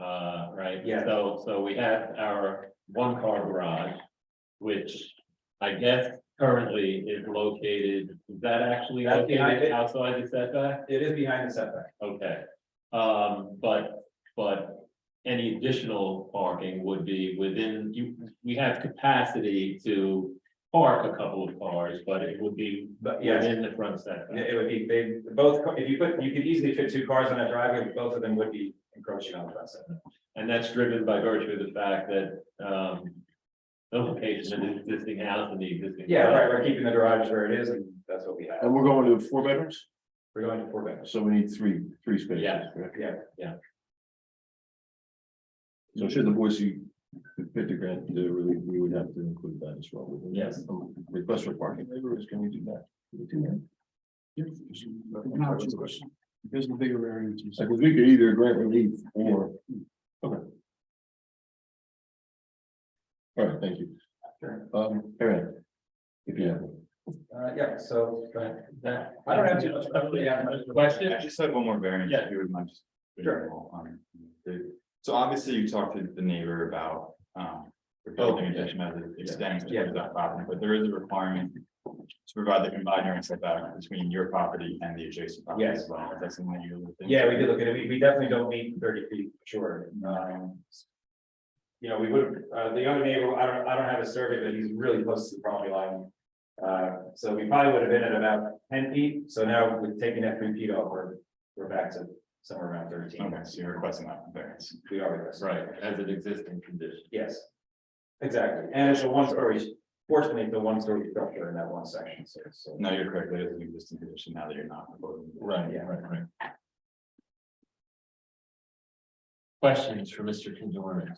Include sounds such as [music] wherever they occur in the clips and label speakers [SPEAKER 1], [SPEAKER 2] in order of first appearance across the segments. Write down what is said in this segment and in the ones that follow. [SPEAKER 1] Uh, right?
[SPEAKER 2] Yeah.
[SPEAKER 1] So, so we had our one car garage, which I guess currently is located, is that actually
[SPEAKER 2] That's behind
[SPEAKER 1] located
[SPEAKER 2] it.
[SPEAKER 1] outside the setback?
[SPEAKER 2] It is behind the setback.
[SPEAKER 1] Okay, um, but, but any additional parking would be within, you, we have capacity to park a couple of cars, but it would be
[SPEAKER 2] But yes,
[SPEAKER 1] within the front setback.
[SPEAKER 2] it would be, they, both, if you put, you could easily fit two cars on that driveway, but both of them would be encroaching on the front setback.
[SPEAKER 1] And that's driven by virtue of the fact that, um, the location of the existing house and the existing.
[SPEAKER 2] Yeah, right, we're keeping the garage where it is, and that's what we have.
[SPEAKER 3] And we're going to four bedrooms,
[SPEAKER 2] We're going to four bedrooms.
[SPEAKER 3] so we need three, three spaces.
[SPEAKER 1] Yeah.
[SPEAKER 3] correct?
[SPEAKER 2] Yeah,
[SPEAKER 1] yeah.
[SPEAKER 3] So should the Boise fifty grant, do, we, we would have to include that as well. wouldn't we?
[SPEAKER 1] Yes.
[SPEAKER 3] Um, Request for parking waivers, can we do that? Can we do that?
[SPEAKER 4] There's a bigger variance.
[SPEAKER 3] Like, Uh, we could either grant relief or. Okay. All right, thank you.
[SPEAKER 2] Sure.
[SPEAKER 3] Um, Aaron. If you have. one.
[SPEAKER 2] uh, yeah, so, go ahead.
[SPEAKER 1] That-
[SPEAKER 2] I don't have too much, I really have much.
[SPEAKER 1] Question?
[SPEAKER 5] I just have one more variance.
[SPEAKER 1] Yeah.
[SPEAKER 5] if you would mind just-
[SPEAKER 2] Sure.
[SPEAKER 5] Um, the- So obviously you talked to the neighbor about, um, the building addition as it extends
[SPEAKER 2] Oh, Yeah.
[SPEAKER 5] to that property, but there is a requirement to provide the combined area setback between your property and the adjacent property
[SPEAKER 2] Yes.
[SPEAKER 5] as well. That's something you. would think.
[SPEAKER 2] Yeah, we did look at it. We, we definitely don't meet thirty feet, sure. Um, You know, we would, uh, the other neighbor, I don't, I don't have a survey, but he's really close to the property line. Uh, so we probably would have been at about ten feet, so now we're taking that three feet off, we're, we're back to somewhere around thirteen.
[SPEAKER 5] Okay, so you're requesting that variance.
[SPEAKER 2] We are with us.
[SPEAKER 1] Right, as an existing condition.
[SPEAKER 2] Yes. Exactly, and it's a one story, fortunately, it's a one story structure in that one section, so, so.
[SPEAKER 5] No, you're correct. That is an existing condition now that you're not proposing.
[SPEAKER 1] Right,
[SPEAKER 2] yeah,
[SPEAKER 1] right, right. Questions for Mr. Condorman?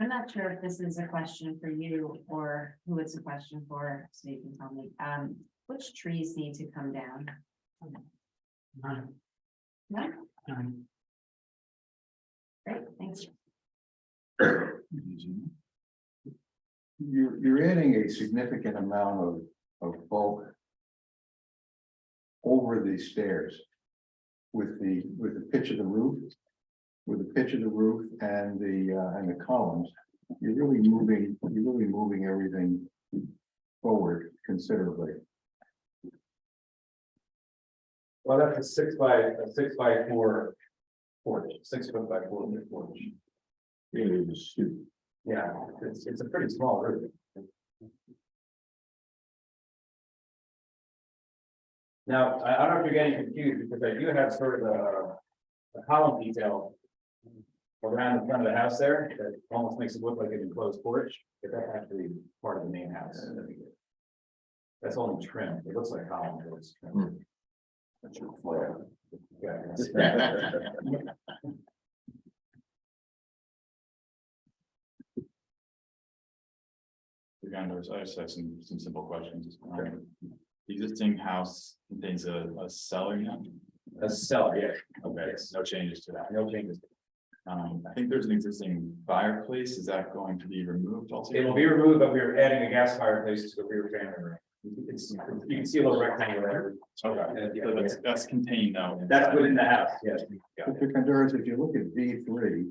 [SPEAKER 6] I'm not sure if this is a question for you or who it's a question for, so you can tell me, um, which trees need to come down? None? Great, thanks.
[SPEAKER 3] You're, you're adding a significant amount of, of bulk. Over the stairs. With the, with the pitch of the roof. With the pitch of the roof and the, uh, and the columns, you're really moving, you're really moving everything. Forward considerably.
[SPEAKER 2] Well, that's a six by, a six by four porch, six foot by four foot porch. Yeah, it's, it's a pretty small roof. Now, I, I don't know if you're getting confused, because I do have sort of a, a column detail. Around the front of the house there, that almost makes it look like an enclosed porch, but that's actually part of the main house. That's only trim, it looks like a column, but it's trim. That's your flair. Yeah.
[SPEAKER 5] You're gonna notice, I just have some, some simple questions. Um, The Existing house contains a, a cellar now?
[SPEAKER 2] A cellar, yeah,
[SPEAKER 5] Okay, so no changes to that.
[SPEAKER 2] no changes.
[SPEAKER 5] Um, I think there's an existing fireplace. Is that going to be removed
[SPEAKER 2] It
[SPEAKER 5] altogether?
[SPEAKER 2] will be removed, but we are adding a gas fireplace to the rear family room. You can see- you can see a little rectangle there.
[SPEAKER 5] Okay,
[SPEAKER 2] Yeah,
[SPEAKER 5] so
[SPEAKER 2] yeah.
[SPEAKER 5] that's, that's contained now.
[SPEAKER 2] That's within the house, yes.
[SPEAKER 3] Mr. Contreras, if you look at V three,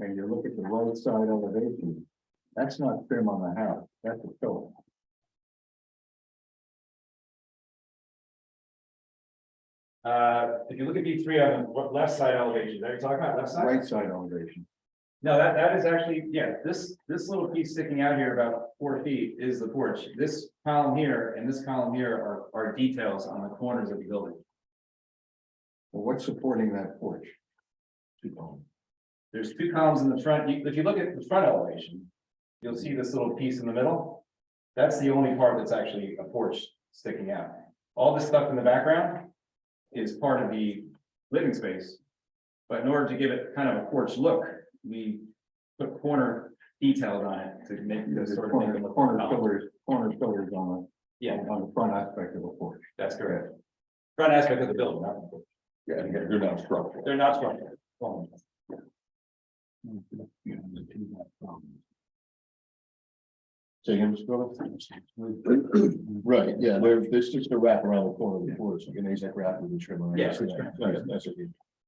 [SPEAKER 3] and you look at the right side elevation, that's not trim on the house, that's a fill.
[SPEAKER 2] Uh, if you look at B three on the what- left side elevation, are you talking about left side?
[SPEAKER 3] right side elevation.
[SPEAKER 2] No, that, that is actually, yeah, this, this little piece sticking out here about four feet is the porch. This column here and this column here are, are details on the corners of the building.
[SPEAKER 3] Well, What's supporting that porch?
[SPEAKER 2] There's two columns in the front. You- If you look at the front elevation, you'll see this little piece in the middle. That's the only part that's actually a porch sticking out. All this stuff in the background is part of the living space. But in order to give it kind of a porch look, we put corner details on it to make this
[SPEAKER 3] There's
[SPEAKER 2] sort of make
[SPEAKER 3] corner,
[SPEAKER 2] it look.
[SPEAKER 3] corner
[SPEAKER 2] like a column.
[SPEAKER 3] pillars, corner pillars on the,
[SPEAKER 2] Yeah,
[SPEAKER 3] on the front aspect of the porch.
[SPEAKER 2] that's correct. Front aspect of the building, not the porch.
[SPEAKER 3] Yeah, they're not structural.
[SPEAKER 2] they're not structural. Well,
[SPEAKER 3] So you [clears throat] Right, yeah, they're, they're just a wrap around the corner of the porch, like an AZAC wrap with the trim. on it.
[SPEAKER 2] Yeah.
[SPEAKER 3] That's right, that's right.